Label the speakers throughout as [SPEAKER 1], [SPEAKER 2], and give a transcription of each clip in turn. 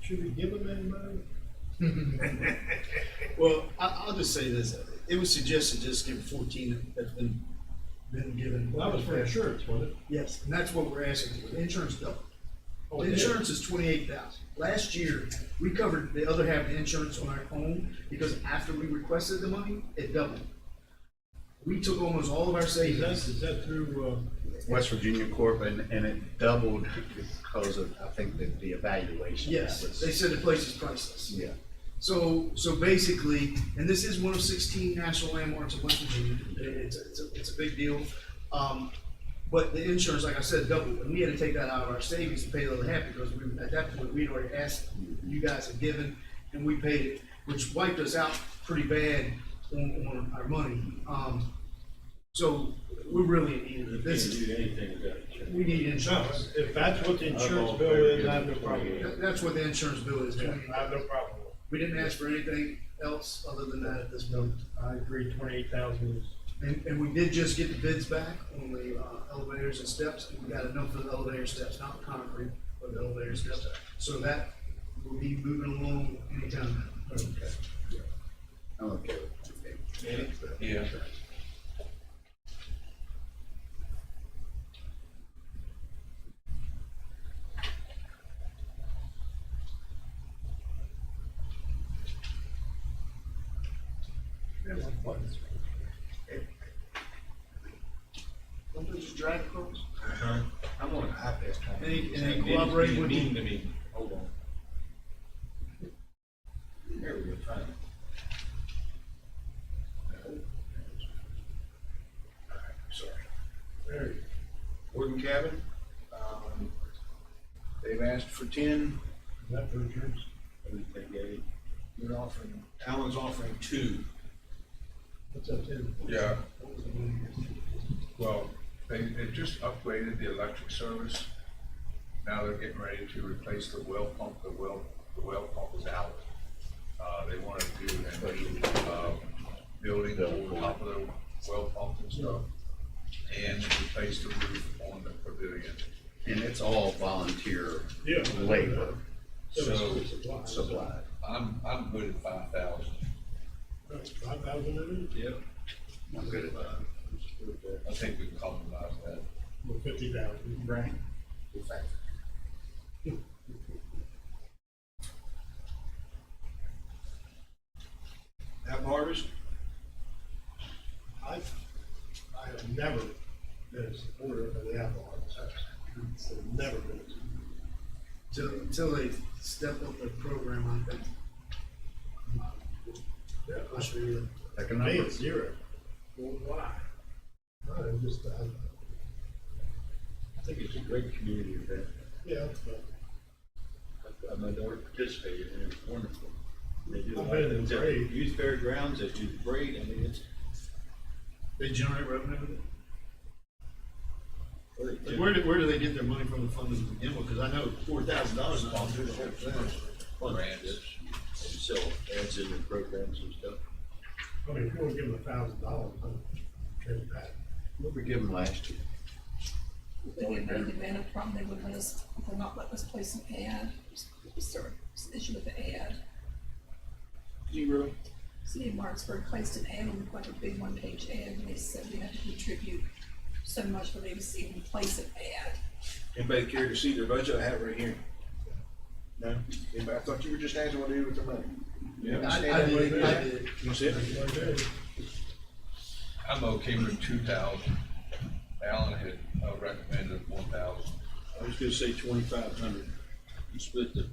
[SPEAKER 1] Should we give them anybody?
[SPEAKER 2] Well, I, I'll just say this, it was suggested just give fourteen that's been, been given.
[SPEAKER 1] Well, that was for insurance, wasn't it?
[SPEAKER 2] Yes, and that's what we're asking for, the insurance double.
[SPEAKER 1] Oh,
[SPEAKER 2] The
[SPEAKER 1] yeah.
[SPEAKER 2] insurance is twenty-eight thousand. Last year, we covered the other half of the insurance on our own, because after we requested the money, it doubled. We took almost all of our
[SPEAKER 1] Is that,
[SPEAKER 2] savings.
[SPEAKER 1] is that through, uh,
[SPEAKER 3] West Virginia Corp, and, and it doubled because of, I think, the, the evaluation.
[SPEAKER 2] Yes, they said the place is priceless.
[SPEAKER 3] Yeah.
[SPEAKER 2] So, so basically, and this is one of sixteen national landmarks of West Virginia, It- it's, a- it's, a- it's a big deal. Um, but the insurance, like I said, doubled, and we had to take that out of our savings to pay the other half, because we, at that point, we'd already asked, you guys had given, and we paid it, which wiped us out pretty bad on, on our money. Um, so, we're really in need of it. this, is-
[SPEAKER 4] do anything without insurance.
[SPEAKER 2] we need
[SPEAKER 1] no,
[SPEAKER 2] insurance.
[SPEAKER 1] uh, if that's what the insurance bill is, I have no problem with
[SPEAKER 2] That-
[SPEAKER 1] it.
[SPEAKER 2] That's what the insurance bill is,
[SPEAKER 1] Yeah,
[SPEAKER 2] twenty-eight
[SPEAKER 1] I have no problem with
[SPEAKER 2] We didn't ask for anything else other than that at this point.
[SPEAKER 1] it. I agree, twenty-eight thousand is,
[SPEAKER 2] And, and we did just get the bids back on the uh, elevators and steps, and we got enough for the elevator steps, not the concrete, but the elevator steps. So that will be moving along anytime.
[SPEAKER 3] Okay. I'm okay with it.
[SPEAKER 4] Yeah.
[SPEAKER 2] Don't they just drag across?
[SPEAKER 4] Uh-huh. I'm on a high pass.
[SPEAKER 2] And- and they cooperate with you?
[SPEAKER 4] to me, hold on. There we go, fine. No. All right, Sorry.
[SPEAKER 1] there,
[SPEAKER 4] Wooden cabin, um, they've asked for ten,
[SPEAKER 1] is that for insurance?
[SPEAKER 4] I think they gave, they're offering, Alan's offering two.
[SPEAKER 1] What's that in?
[SPEAKER 5] Yeah, well, they, they just upgraded the electric service. Now they're getting ready to replace the well pump, the well, the well pump is out. Uh, they wanna do a special, uh, building on top of the well pump and stuff. And replace the roof on the pavilion.
[SPEAKER 3] And it's all volunteer
[SPEAKER 1] Yeah.
[SPEAKER 3] labor
[SPEAKER 1] So,
[SPEAKER 3] supplied.
[SPEAKER 5] I'm, I'm good at five thousand.
[SPEAKER 1] Five thousand in
[SPEAKER 5] Yep.
[SPEAKER 3] I'm good at that.
[SPEAKER 5] I think we can compromise that.
[SPEAKER 1] it, or fifty thousand?
[SPEAKER 3] Right.
[SPEAKER 4] Have harvest,
[SPEAKER 1] I, I have never been a supporter of the Apple Arts. I've never been.
[SPEAKER 2] Till, till they step up their program, I think.
[SPEAKER 1] Yeah,
[SPEAKER 2] I should really-
[SPEAKER 3] Like a
[SPEAKER 1] To me,
[SPEAKER 3] number.
[SPEAKER 1] it's zero. Well, why? I don't know, just, I,
[SPEAKER 4] I think it's a great community event,
[SPEAKER 1] yeah, but
[SPEAKER 4] I- I- my daughter participated, and it was wonderful. They do a
[SPEAKER 1] I've
[SPEAKER 4] lot of
[SPEAKER 1] been in
[SPEAKER 4] things at
[SPEAKER 1] the parade.
[SPEAKER 4] Youth fairgrounds, they do the parade, I mean, it's,
[SPEAKER 2] They generate revenue with it.
[SPEAKER 4] they do-
[SPEAKER 2] Like, Where, do- where do they get their money from the fund to begin with? Because I know four thousand dollars is all through the whole thing.
[SPEAKER 4] Grants. And sell ads in their programs and stuff.
[SPEAKER 1] I mean, if you want to give them a thousand dollars, I'm okay with that.
[SPEAKER 3] What we give them last year?
[SPEAKER 6] They would know the banner from, they would let us, would not let us place an ad, sort of issue with the ad.
[SPEAKER 4] Zero.
[SPEAKER 6] City of Martinsburg placed an ad on like a big one-page ad, and they said we have to contribute so much for them to even place an ad.
[SPEAKER 4] Anybody care to see their budget? I have it right here. No? Anybody, I thought you were just asking what to do with the money. Yeah.
[SPEAKER 2] I, I did, I did.
[SPEAKER 4] You see it?
[SPEAKER 1] Like, hey,
[SPEAKER 5] I'm okay with two thousand. Alan had uh, recommended one thousand.
[SPEAKER 4] I was gonna say twenty-five hundred. You split the.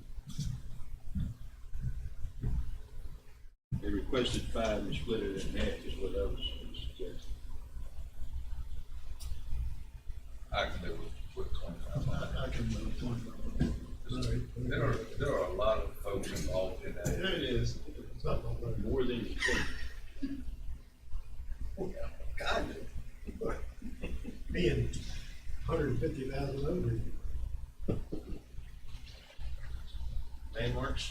[SPEAKER 4] They requested five and split it in half is what I was suggesting.
[SPEAKER 5] I can do it with twenty-five hundred.
[SPEAKER 2] I can move on.
[SPEAKER 5] There are, there are a lot of folks involved in
[SPEAKER 1] There
[SPEAKER 5] that.
[SPEAKER 1] it is. It's up on there.
[SPEAKER 4] More than you think.
[SPEAKER 2] God,
[SPEAKER 1] Being hundred and fifty thousand over.
[SPEAKER 4] Landmarks?